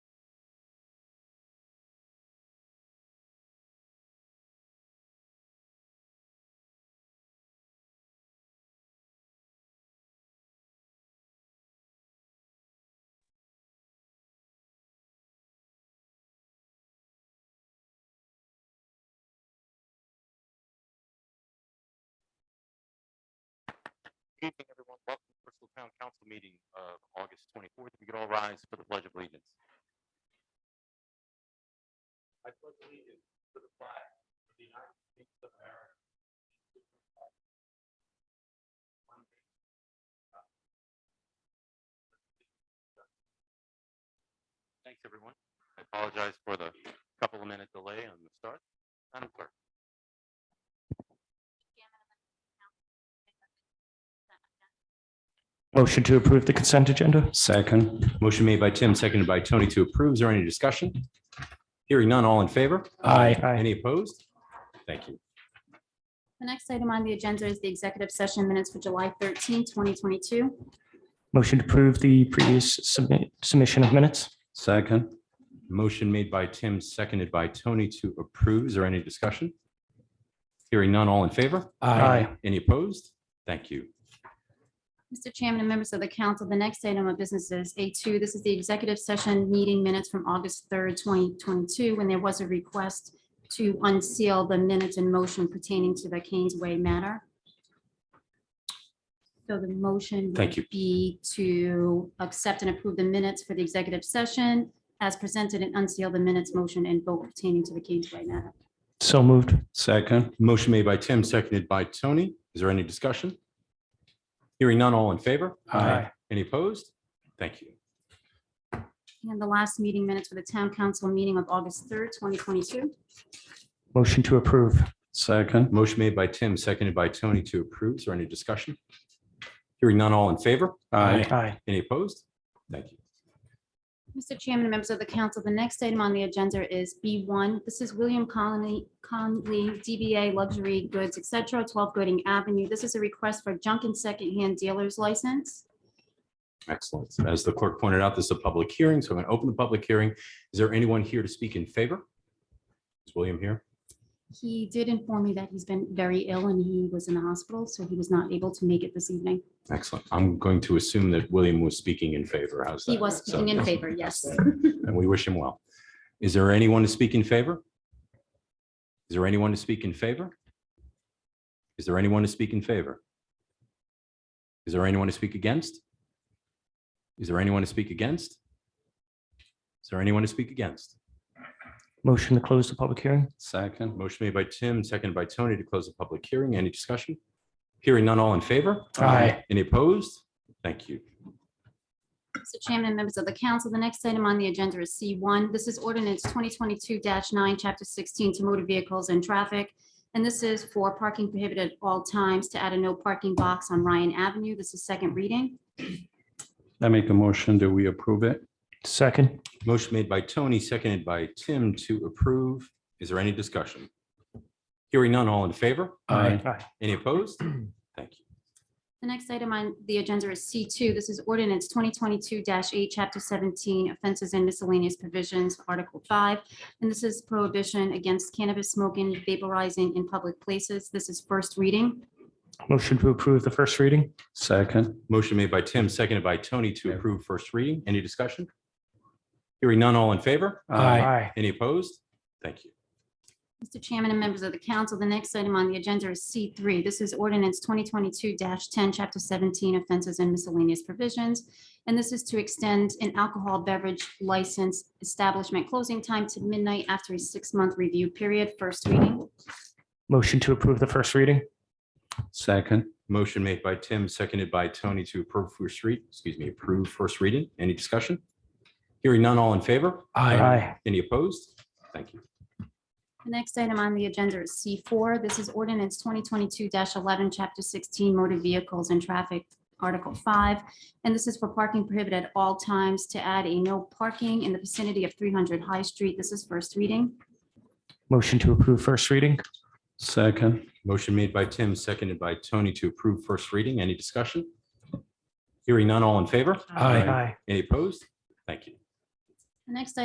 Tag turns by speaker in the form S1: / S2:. S1: Evening, everyone. Welcome to Bristol Town Council meeting of August twenty-fourth. We could all rise for the pledge of allegiance. I pledge allegiance to the flag of the United States of America. Thanks, everyone. I apologize for the couple of minute delay on the start. Madam Clerk.
S2: Motion to approve the consent agenda?
S3: Second. Motion made by Tim, seconded by Tony to approve. Is there any discussion? Hearing none, all in favor?
S2: Aye. Aye.
S3: Any opposed? Thank you.
S4: The next item on the agenda is the executive session minutes for July 13, 2022.
S2: Motion to approve the previous submit, submission of minutes?
S3: Second. Motion made by Tim, seconded by Tony to approve. Is there any discussion? Hearing none, all in favor?
S2: Aye.
S3: Any opposed? Thank you.
S4: Mr. Chairman and members of the council, the next item of business is A2. This is the executive session meeting minutes from August 3rd, 2022, when there was a request to unseal the minutes in motion pertaining to the Canes Way matter. So the motion would
S3: Thank you.
S4: be to accept and approve the minutes for the executive session as presented and unseal the minutes motion and vote pertaining to the Canes Way matter.
S2: So moved.
S3: Second. Motion made by Tim, seconded by Tony. Is there any discussion? Hearing none, all in favor?
S2: Aye.
S3: Any opposed? Thank you.
S4: And the last meeting minutes for the town council meeting of August 3rd, 2022.
S2: Motion to approve?
S3: Second. Motion made by Tim, seconded by Tony to approve. Is there any discussion? Hearing none, all in favor?
S2: Aye.
S3: Any opposed? Thank you.
S4: Mr. Chairman, members of the council, the next item on the agenda is B1. This is William Conley, Conley, DBA Luxury Goods, et cetera, 12 Gooding Avenue. This is a request for junk and secondhand dealer's license.
S3: Excellent. As the clerk pointed out, this is a public hearing, so I'm going to open the public hearing. Is there anyone here to speak in favor? Is William here?
S4: He did inform me that he's been very ill and he was in the hospital, so he was not able to make it this evening.
S3: Excellent. I'm going to assume that William was speaking in favor. How's that?
S4: He was
S3: So-
S4: speaking in favor, yes.
S3: And we wish him well. Is there anyone to speak in favor? Is there anyone to speak in favor? Is there anyone to speak in favor? Is there anyone to speak against? Is there anyone to speak against? Is there anyone to speak against?
S2: Motion to close the public hearing?
S3: Second. Motion made by Tim, seconded by Tony to close the public hearing. Any discussion? Hearing none, all in favor?
S2: Aye.
S3: Any opposed? Thank you.
S4: Mr. Chairman and members of the council, the next item on the agenda is C1. This is ordinance 2022-9, Chapter 16, to motor vehicles and traffic. And this is for parking prohibited at all times to add a no parking box on Ryan Avenue. This is second reading.
S5: I make a motion that we approve it.
S2: Second?
S3: Motion made by Tony, seconded by Tim to approve. Is there any discussion? Hearing none, all in favor?
S2: Aye.
S3: Any opposed? Thank you.
S4: The next item on the agenda is C2. This is ordinance 2022-8, Chapter 17, offenses and miscellaneous provisions, Article 5. And this is prohibition against cannabis smoking, vaporizing in public places. This is first reading.
S2: Motion to approve the first reading?
S5: Second.
S3: Motion made by Tim, seconded by Tony to approve first reading. Any discussion? Hearing none, all in favor?
S2: Aye.
S3: Any opposed? Thank you.
S4: Mr. Chairman and members of the council, the next item on the agenda is C3. This is ordinance 2022-10, Chapter 17, offenses and miscellaneous provisions. And this is to extend an alcohol beverage license establishment closing time to midnight after a six-month review period, first reading.
S2: Motion to approve the first reading?
S5: Second.
S3: Motion made by Tim, seconded by Tony to approve first read, excuse me, approve first reading. Any discussion? Hearing none, all in favor?
S2: Aye.
S3: Any opposed? Thank you.
S4: The next item on the agenda is C4. This is ordinance 2022-11, Chapter 16, motor vehicles and traffic, Article 5. And this is for parking prohibited at all times to add a no parking in the vicinity of 300 High Street. This is first reading.
S2: Motion to approve first reading?
S5: Second.
S3: Motion made by Tim, seconded by Tony to approve first reading. Any discussion? Hearing none, all in favor?
S5: Aye.
S2: Aye.
S3: Any opposed? Thank you.
S4: The next